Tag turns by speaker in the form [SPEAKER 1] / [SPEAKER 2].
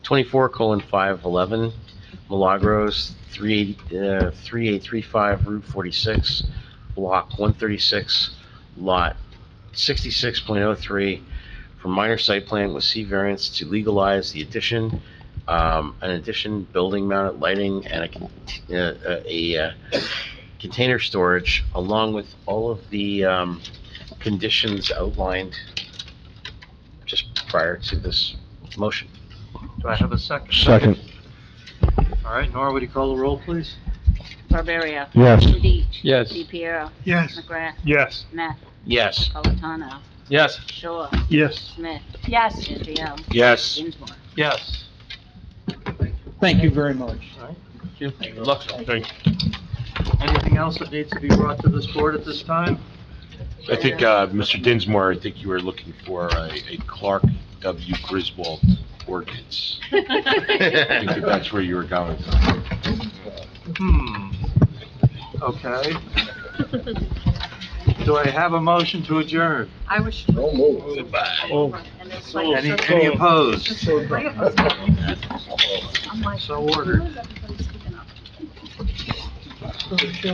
[SPEAKER 1] twenty-four colon five eleven, Milagros, three, uh, three eight three five, Route forty-six, block one thirty-six, lot sixty-six point oh three, for minor site plan with C variance to legalize the addition, um, an addition, building mounted lighting, and a, con- uh, a, uh, container storage, along with all of the, um, conditions outlined just prior to this motion.
[SPEAKER 2] Do I have a second?
[SPEAKER 3] Second,
[SPEAKER 2] All right, Nora, would you call the roll, please?
[SPEAKER 4] Barberio.
[SPEAKER 3] yes.
[SPEAKER 4] Deech.
[SPEAKER 5] Yes.
[SPEAKER 4] Piero,
[SPEAKER 2] Yes.
[SPEAKER 4] McGrath.
[SPEAKER 2] Yes.
[SPEAKER 4] Neff.
[SPEAKER 1] Yes.
[SPEAKER 4] Napolitano.
[SPEAKER 5] Yes.
[SPEAKER 4] Shaw.
[SPEAKER 2] Yes.
[SPEAKER 4] Smith. Yes. Israel.
[SPEAKER 5] Yes.
[SPEAKER 4] Dinsmore.
[SPEAKER 2] Yes.
[SPEAKER 6] Thank you very much.
[SPEAKER 5] Good luck.
[SPEAKER 2] Thank Anything else that needs to be brought to this board at this time?
[SPEAKER 7] I think, uh, Mr. Dinsmore, I think you were looking for a a Clark W. Griswold ordinance. I think that that's where you were going.
[SPEAKER 2] Hmm. Okay. Do I have a motion to adjourn?
[SPEAKER 8] I was.
[SPEAKER 2] Any, any opposed?
[SPEAKER 8] I'm like.
[SPEAKER 2] So ordered.
[SPEAKER 8] Everybody's picking up.